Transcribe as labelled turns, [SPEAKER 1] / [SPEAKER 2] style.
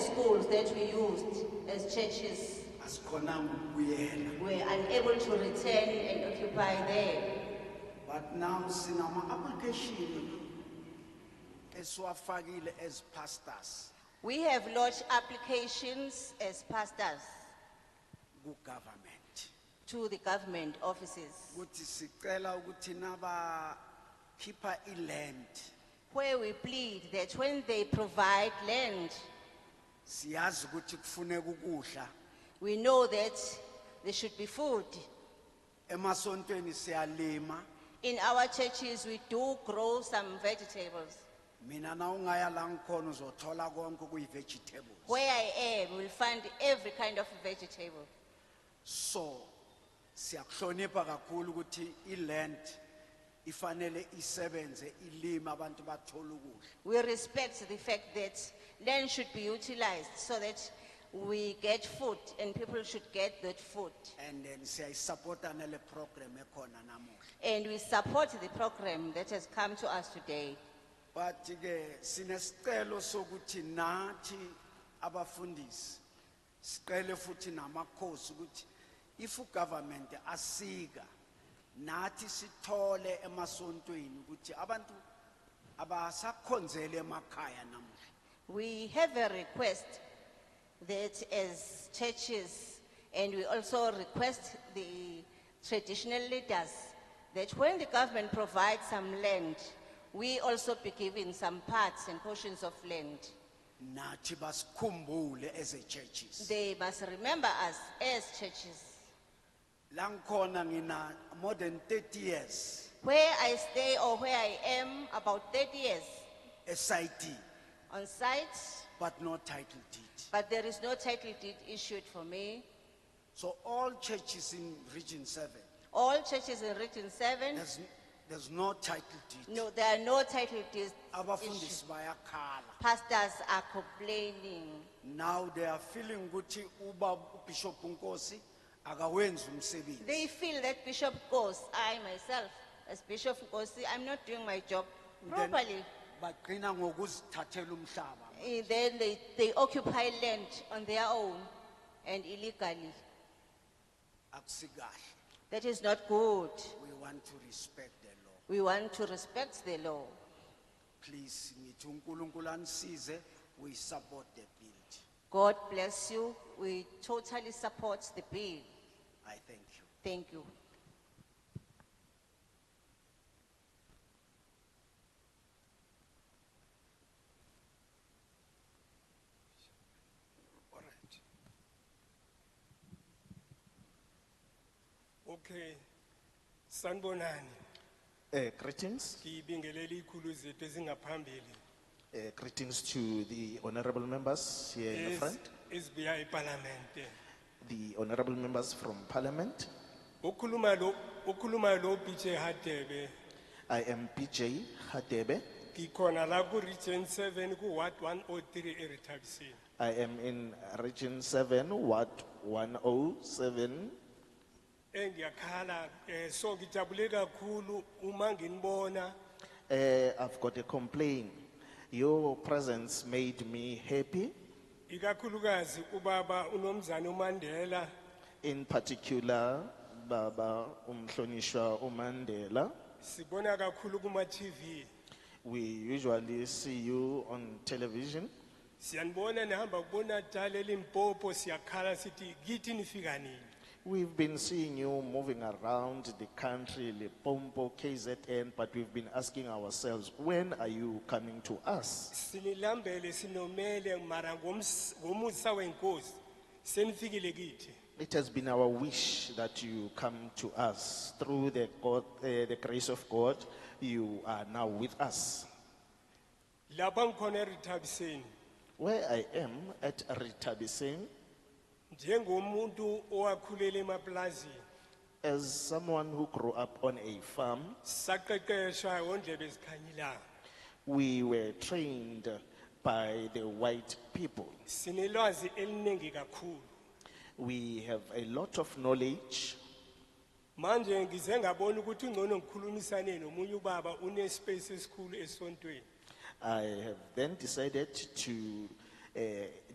[SPEAKER 1] that we used as churches
[SPEAKER 2] asikhonanga ukubuyela
[SPEAKER 1] were unable to return and occupy there.
[SPEAKER 2] but now sinama-application esiwafakile as pastors
[SPEAKER 1] We have lodged applications as pastors
[SPEAKER 2] kugovernment
[SPEAKER 1] to the government offices
[SPEAKER 2] ukuthi sicela ukuthi nabakhipha iland
[SPEAKER 1] where we plead that when they provide land,
[SPEAKER 2] siyazi ukuthi kufuneka ukudla
[SPEAKER 1] we know that there should be food.
[SPEAKER 2] emasontweni siyalima
[SPEAKER 1] In our churches, we do grow some vegetables.
[SPEAKER 2] mina na ungaya la ngikhona uzothola konke okuyi-vegetables
[SPEAKER 1] Where I am, we'll find every kind of vegetable.
[SPEAKER 2] so siyakuhlonipha kakhulu ukuthi iland ifanele isebenze ilime abantu bathole ukudla
[SPEAKER 1] We respect the fact that land should be utilized so that we get food and people should get that food.
[SPEAKER 2] and then siyayisapota nale program ekhona namuhla
[SPEAKER 1] And we support the program that has come to us today.
[SPEAKER 2] but-ke sinesicelo sokuthi nathi abafundisi siqele futhi namakhosi ukuthi if ugovernment asika nathi sithole emasontweni ukuthi abantu abasakhonzele emakhaya namuhla
[SPEAKER 1] We have a request that as churches, and we also request the traditional leaders that when the government provides some land, we also be given some parts and portions of land.
[SPEAKER 2] nathi basikhumbule as a churches
[SPEAKER 1] They must remember us as churches.
[SPEAKER 2] la ngikhona ngina more than 30 years
[SPEAKER 1] Where I stay or where I am, about 30 years
[SPEAKER 2] SID
[SPEAKER 1] on site,
[SPEAKER 2] but no title deed
[SPEAKER 1] but there is no title deed issued for me.
[SPEAKER 2] so all churches in region 7
[SPEAKER 1] All churches in Region 7,
[SPEAKER 2] There's, there's no title deed.
[SPEAKER 1] no, there are no title deeds.
[SPEAKER 2] Abafundisi
[SPEAKER 1] issued.
[SPEAKER 2] bayakhala.
[SPEAKER 1] Pastors are complaining.
[SPEAKER 2] Now they are feeling ukuthi uba Bishop Nkosi akawenzi umsebenzi.
[SPEAKER 1] They feel that Bishop Goss, I myself, as Bishop Gossi, I'm not doing my job
[SPEAKER 2] Then
[SPEAKER 1] properly.
[SPEAKER 2] Baqina ngokuzithathela umhlaba.
[SPEAKER 1] Eh, Then they, they occupy land on their own and illegally.
[SPEAKER 2] Akusikahle.
[SPEAKER 1] That is not good.
[SPEAKER 2] We want to respect the law.
[SPEAKER 1] We want to respect the law.
[SPEAKER 2] Please, ngithi uNkulunkulu anisize, we support the bill.
[SPEAKER 1] God bless you. We totally support the bill.
[SPEAKER 2] I thank you.
[SPEAKER 1] Thank you.
[SPEAKER 3] All right. Okay, sanbonani,
[SPEAKER 4] Uh, greetings,
[SPEAKER 3] kibingeleli ikhulu zethu ezingaphambili.
[SPEAKER 4] uh, greetings to the honorable members here Eh, in the front,
[SPEAKER 3] Isbiya iparlamente.
[SPEAKER 4] the honorable members from parliament.
[SPEAKER 3] Ukuluma lo, ukuluma lo biche hatebe,
[SPEAKER 4] I am PJ Hadebe.
[SPEAKER 3] kikona la ku region seven ku Ward one oh three eritabisi.
[SPEAKER 4] I am in region seven, Ward one oh seven.
[SPEAKER 3] Engiyakhala, eh, so ngijabule kakhulu uma nginibona
[SPEAKER 4] Uh, I've got a complaint. Your presence made me happy,
[SPEAKER 3] ikakhulukazi ubaba unomzane uMandela
[SPEAKER 4] in particular Baba Umhlonishwa Umandela.
[SPEAKER 3] sibona kakhulu kuma TV.
[SPEAKER 4] We usually see you on television.
[SPEAKER 3] Siyanbona nihamba kubona tale limpopo siyakhala sithi kithi nifika nini.
[SPEAKER 4] We've been seeing you moving around the country, Lepompo, KZN, but we've been asking ourselves, when are you coming to us?
[SPEAKER 3] Sinilambele sinomele mara ngoms- ngomusa wenkosi senifikile kithi.
[SPEAKER 4] It has been our wish that you come to us. Through the, God, eh, the grace of God, you are now with us.
[SPEAKER 3] Lapha ngikhona eRithabiseni
[SPEAKER 4] Where I am at Ritabisin,
[SPEAKER 3] njengomuntu owakhulela emaplazini
[SPEAKER 4] as someone who grew up on a farm,
[SPEAKER 3] saqeqeshwa ondlebe ezikhanyilanga.
[SPEAKER 4] we were trained by the white people.
[SPEAKER 3] Sinelwazi eliningi kakhulu.
[SPEAKER 4] We have a lot of knowledge
[SPEAKER 3] Manje ngize ngabona ukuthi ungcono ngikhulumisane nomunye ubaba une space esikhulu esontweni.
[SPEAKER 4] I have then decided to uh,